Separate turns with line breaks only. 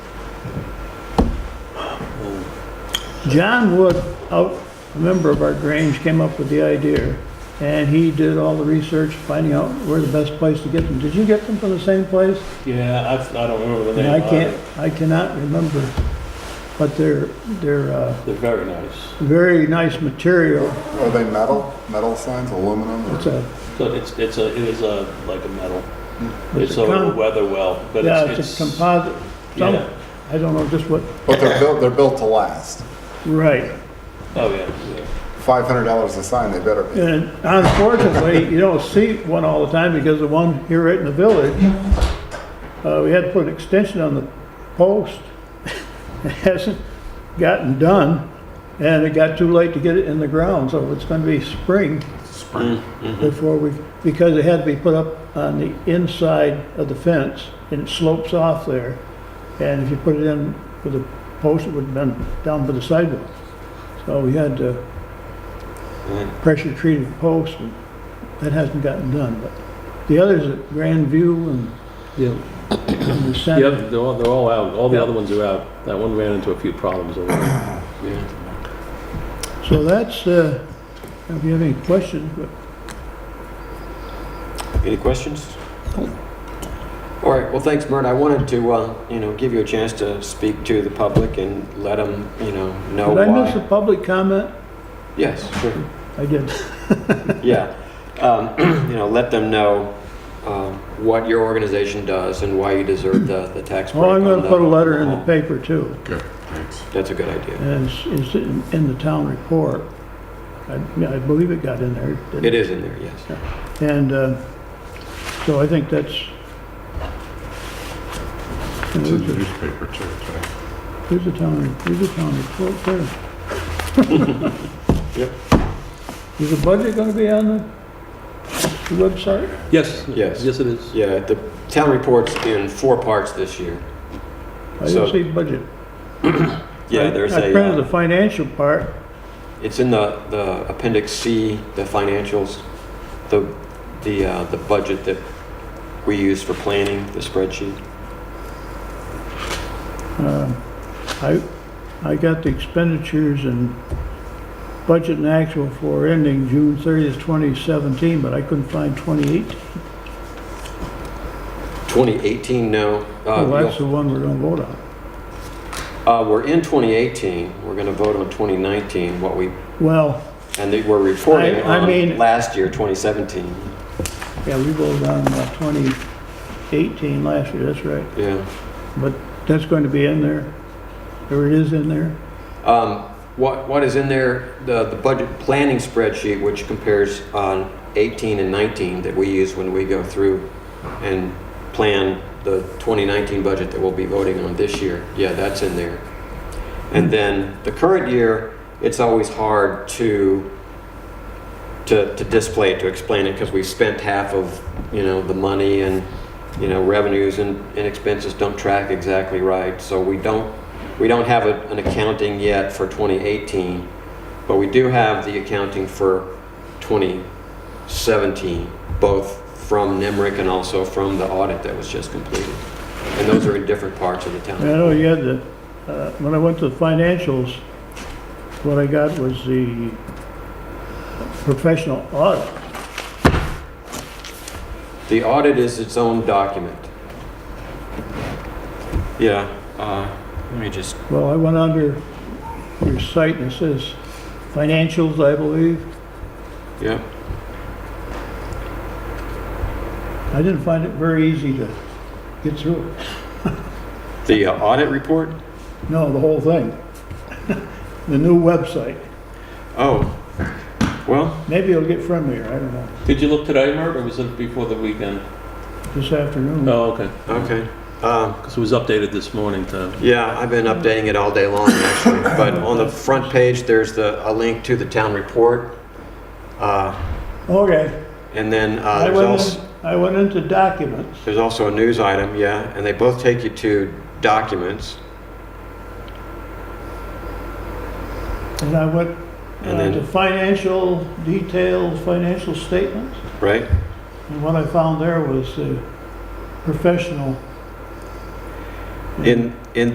John Wood, out, a member of our Grange, came up with the idea, and he did all the research, finding out where the best place to get them. Did you get them from the same place?
Yeah, I, I don't remember the
And
name.
I
of
can't,
it.
I cannot remember, but they're, they're, uh,
They're very nice.
very nice material.
Are they metal, metal signs, aluminum? or-
It's a,
So it's, it's a, it is a, like a metal.
It's
It's
a
a
con-
weather well, but
yeah,
it's,
it's a
it's,
composite, some,
yeah.
I don't know just what,
But they're built, they're built to last.
right.
Oh, yeah, yeah.
Five hundred dollars a sign, they better be.
And unfortunately, you don't see one all the time because the one here right in the village, uh, we had to put an extension on the post. It hasn't gotten done and it got too late to get it in the ground, so it's gonna be spring before we, because it had to be put up on the inside of the fence and it slopes off there. And if you put it in with a post, it would have been down by the sidewalk. So we had to pressure treated posts, and that hasn't gotten done, but the others at Grand View and
Yeah,
and the
the
center.
other, they're all, they're all out, all the
Yeah.
other ones are out. That one ran into a few problems over there.
Yeah.
So that's, uh, if you have any questions, but
Any questions? All right, well, thanks, Mert. I wanted to, uh, you know, give you a chance to speak to the public and let them, you know, know
did I miss a
why.
public comment?
Yes, sure.
I did.
Yeah, um, you know, let them know um, what your organization does and why you deserve the, the tax break.
Well, Oh, I'm
on
gonna
the-
put a letter in the
home.
paper too,
That's a good idea.
and it's, it's in in the town report. I, I believe it got in there. didn't
It is in there, yes.
And, uh, so I think that's.
It's in the newspaper too, right?
There's a town, there's a town report there.
Yep.
Is the budget gonna be on the the website?
Yes,
Yes.
yes, it is.
Yeah, the town report's in four parts this year.
I
So-
didn't see budget.
Yeah, there's
I
a,
printed the
uh,
financial part,
it's in the, the appendix C, the financials, the, the, uh, the budget that we use for planning, the spreadsheet.
I, I got the expenditures and budget and actual for ending June thirtieth, twenty seventeen, but I couldn't find twenty-eight.
2018, no. Uh,
Well, that's
you'll-
the one we're gonna vote on.
Uh, we're in 2018, we're gonna vote on 2019, what we,
Well,
and they were reporting
I- I mean-
on last year, 2017.
yeah, we voted on uh, twenty eighteen last year, that's right.
Yeah.
But that's going to be in there, or it is in there.
Um, What, what is in there, the, the budget planning spreadsheet, which compares on 18 and 19 that we use when we go through and plan the 2019 budget that we'll be voting on this year, yeah, that's in there. And then the current year, it's always hard to, to, to display it, to explain it, because we spent half of, you know, the money and, you know, revenues and, and expenses don't track exactly right, so we don't, we don't have a- an accounting yet for 2018, but we do have the accounting for 2017, both from NIMRIC and also from the audit that was just completed. And those are in different parts of the
I
town.
know you had the, uh, when I went to the financials, what I got was the professional audit.
The audit is its own document. Yeah, uh, let me just,
Well, I went under your site and it says financials, I believe.
yeah.
I didn't find it very easy to get through it.
The uh, audit report?
No, the whole thing. The new website.
Oh, well,
Maybe it'll get friendlier, I don't know,
Did you look today, Mert, or was it before the weekend?
this afternoon.
Oh, okay,
okay. Um,
because it was updated this morning to,
Yeah, I've been updating it all day long, actually. But on the front page, there's the, a link to the town report. Uh,
Okay.
And then uh,
I
there's
went,
also,
in- I went into documents.
there's also a news item, yeah, and they both take you to documents.
And I went
And
uh,
then-
to financial details, financial statements,
right?
and what I found there was the professional.
In, in